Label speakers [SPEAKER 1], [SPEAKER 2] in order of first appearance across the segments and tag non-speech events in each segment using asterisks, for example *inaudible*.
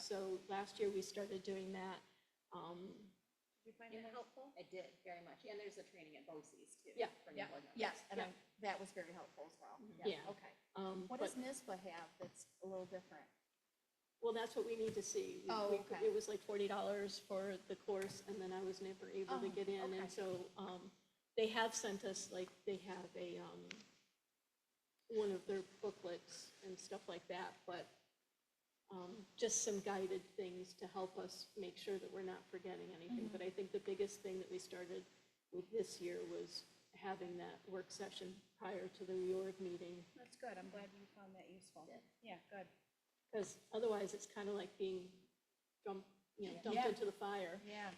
[SPEAKER 1] So last year, we started doing that. Um,
[SPEAKER 2] Did you find it helpful?
[SPEAKER 3] I did, very much. And there's a training at BOCES too.
[SPEAKER 1] Yeah,
[SPEAKER 3] for new
[SPEAKER 2] yeah,
[SPEAKER 3] board members.
[SPEAKER 2] Yes, and
[SPEAKER 1] Yeah. Mm-hmm.
[SPEAKER 2] I, that was very helpful as well.
[SPEAKER 3] Mhm.
[SPEAKER 1] Yeah.
[SPEAKER 2] Okay.
[SPEAKER 1] um,
[SPEAKER 2] What
[SPEAKER 1] but-
[SPEAKER 2] does NISBA have that's a little different?
[SPEAKER 1] Well, that's what we need to see. We-
[SPEAKER 2] Oh,
[SPEAKER 1] we-
[SPEAKER 2] okay.
[SPEAKER 1] It was like forty dollars for the course, and then I was never able to
[SPEAKER 2] Oh,
[SPEAKER 1] get in,
[SPEAKER 2] okay.
[SPEAKER 1] and so, um, they have sent us, like, they have a, um, one of their booklets and stuff like that, but, um, just some guided things to help us make sure that we're not forgetting anything.
[SPEAKER 2] Mm-hmm.
[SPEAKER 1] But I think the biggest thing that we started with this year was having that work session prior to the reorg meeting,
[SPEAKER 4] That's good, I'm glad you found that useful.
[SPEAKER 3] Yeah.
[SPEAKER 4] Yeah, good.
[SPEAKER 1] because otherwise it's kind of like being dumped, you know, dumped
[SPEAKER 4] Yeah.
[SPEAKER 1] into the
[SPEAKER 4] *laughs*
[SPEAKER 1] fire.
[SPEAKER 4] Yeah.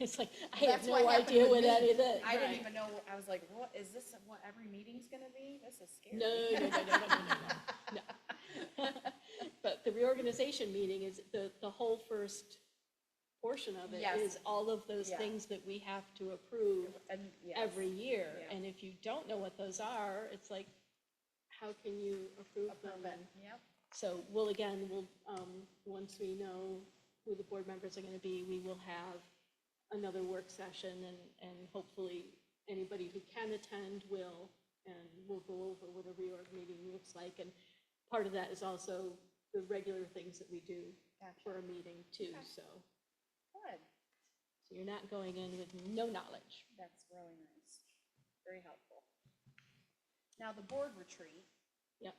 [SPEAKER 1] It's like, I
[SPEAKER 4] That's
[SPEAKER 1] have no
[SPEAKER 4] what happened
[SPEAKER 1] idea
[SPEAKER 4] with
[SPEAKER 1] what
[SPEAKER 4] me.
[SPEAKER 1] any of that.
[SPEAKER 4] I didn't
[SPEAKER 1] right.
[SPEAKER 4] even know, I was like, what, is this what every meeting's gonna be? This is scary.
[SPEAKER 1] No, no, no, no, no, no, no, no,
[SPEAKER 4] *laughs*
[SPEAKER 1] no. But the reorganization meeting is, the, the whole first portion of it
[SPEAKER 4] Yes.
[SPEAKER 1] is all of those
[SPEAKER 4] Yeah.
[SPEAKER 1] things that we have to approve
[SPEAKER 4] And, yes.
[SPEAKER 1] every year.
[SPEAKER 4] Yeah.
[SPEAKER 1] And if you don't know what those are, it's like, how can you approve them? And
[SPEAKER 4] Yep,
[SPEAKER 1] So we'll, again, we'll, um, once we know who the board members are gonna be, we will have another work session and, and hopefully anybody who can attend will, and we'll go over what a reorg meeting looks like. And part of that is also the regular things that we do
[SPEAKER 4] gotcha,
[SPEAKER 1] for a meeting too, so,
[SPEAKER 4] good,
[SPEAKER 1] so you're not going in with no knowledge.
[SPEAKER 4] that's really nice, very helpful. Now, the board retreat.
[SPEAKER 1] Yep.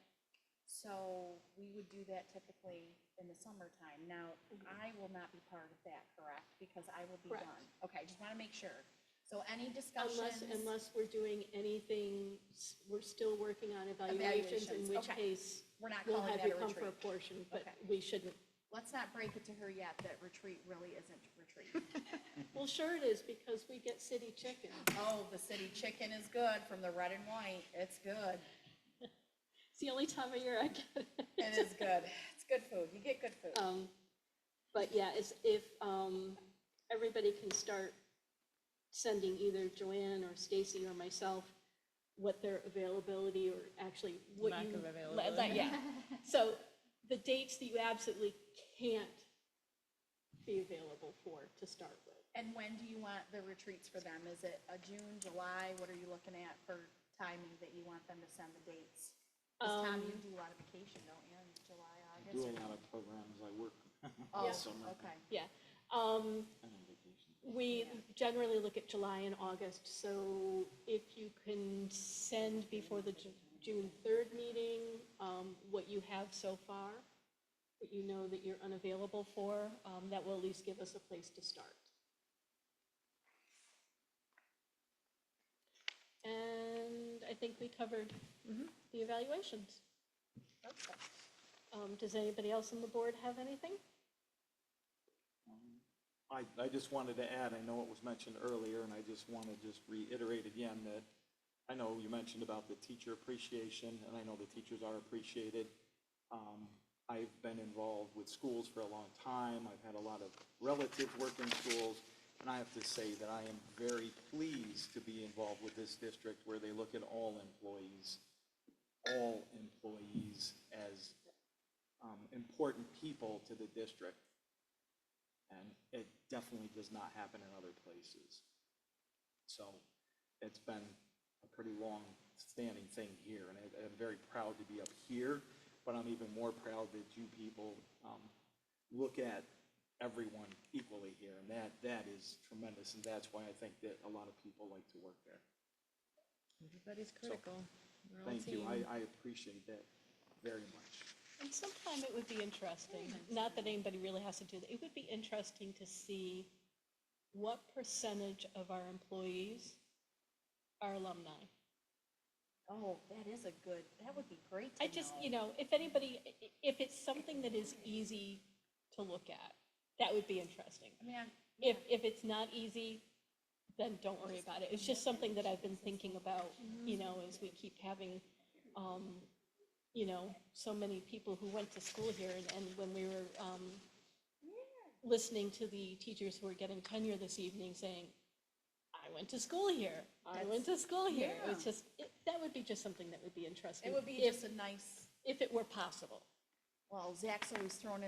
[SPEAKER 4] So we would do that typically in the summertime. Now, I will not be part of that, correct? Because I will be
[SPEAKER 1] Correct.
[SPEAKER 4] gone. Okay, just wanna make sure. So any
[SPEAKER 1] Unless,
[SPEAKER 4] discussions?
[SPEAKER 1] unless we're doing anything, s- we're still working on evaluations, in
[SPEAKER 4] Evaluations,
[SPEAKER 1] which
[SPEAKER 4] okay.
[SPEAKER 1] case
[SPEAKER 4] We're not
[SPEAKER 1] we'll
[SPEAKER 4] calling
[SPEAKER 1] have
[SPEAKER 4] that
[SPEAKER 1] you
[SPEAKER 4] a
[SPEAKER 1] come for a
[SPEAKER 4] retreat.
[SPEAKER 1] portion, but
[SPEAKER 4] Okay.
[SPEAKER 1] we shouldn't
[SPEAKER 4] Let's not break it to her yet that retreat really isn't retreat. *laughs*
[SPEAKER 1] Well, sure it is, because we get city chicken.
[SPEAKER 4] Oh, the city chicken is good from the red and white. It's good.
[SPEAKER 1] It's the only time of year I get it. *laughs*
[SPEAKER 4] It is good. It's good food. You get good food.
[SPEAKER 1] Um, But yeah, it's, if, um, everybody can start sending either Joanne or Stacy or myself what their availability or actually what
[SPEAKER 5] Lack
[SPEAKER 1] you.
[SPEAKER 5] of
[SPEAKER 1] la-
[SPEAKER 5] availability.
[SPEAKER 1] la- Yeah, *laughs* so the dates that you absolutely can't be available for to start with.
[SPEAKER 4] And when do you want the retreats for them? Is it a June, July? What are you looking at for timing that you want them to send the dates? Because Tom, you
[SPEAKER 1] Um,
[SPEAKER 4] do a lot of vacation, don't you, in July,
[SPEAKER 6] I
[SPEAKER 4] August?
[SPEAKER 6] do a
[SPEAKER 4] or-
[SPEAKER 6] lot of programs, I work all summer.
[SPEAKER 4] Oh, okay.
[SPEAKER 1] Yeah, um,
[SPEAKER 6] I'm on vacation.
[SPEAKER 1] We
[SPEAKER 4] Yeah.
[SPEAKER 1] generally look at July and August, so if you can send before the Ju- June 3rd meeting, um, what you have so far, that you know that you're unavailable for, um, that will at least give us a place to start. And I think we covered the evaluations.
[SPEAKER 4] Okay.
[SPEAKER 1] Um, Does anybody else on the board have anything?
[SPEAKER 6] I, I just wanted to add, I know it was mentioned earlier, and I just want to just reiterate again that I know you mentioned about the teacher appreciation, and I know the teachers are appreciated. Um, I've been involved with schools for a long time. I've had a lot of relatives work in schools, and I have to say that I am very pleased to be involved with this district where they look at all employees, all employees as um, important people to the district. And it definitely does not happen in other places. So it's been a pretty long-standing thing here, and I- I'm very proud to be up here, but I'm even more proud that you people um, look at everyone equally here, and that, that is tremendous, and that's why I think that a lot of people like to work there.
[SPEAKER 5] Everybody's critical. We're all
[SPEAKER 6] Thank you,
[SPEAKER 5] team.
[SPEAKER 6] I, I appreciate that very much.
[SPEAKER 1] And sometime it would be interesting, not that anybody really has to do that, it would be interesting to see what percentage of our employees are alumni.
[SPEAKER 4] Oh, that is a good, that would be great to
[SPEAKER 1] I just, you
[SPEAKER 4] know.
[SPEAKER 1] know, if anybody, i- i- if it's something that is easy to look at, that would be interesting.
[SPEAKER 4] I mean, I-
[SPEAKER 1] If, if it's not easy, then don't worry about it. It's just something that I've been thinking about,
[SPEAKER 4] Mm-hmm.
[SPEAKER 1] you know, as we keep having, um, you know, so many people who went to school here and, and when we were, um, listening to the teachers who are getting tenure this evening saying, I went to school here, I went to school here. It's just, it, that would be just something that would be interesting.
[SPEAKER 4] it would be
[SPEAKER 1] if-
[SPEAKER 4] just a nice,
[SPEAKER 1] If it were possible.
[SPEAKER 4] well, Zach's always thrown in.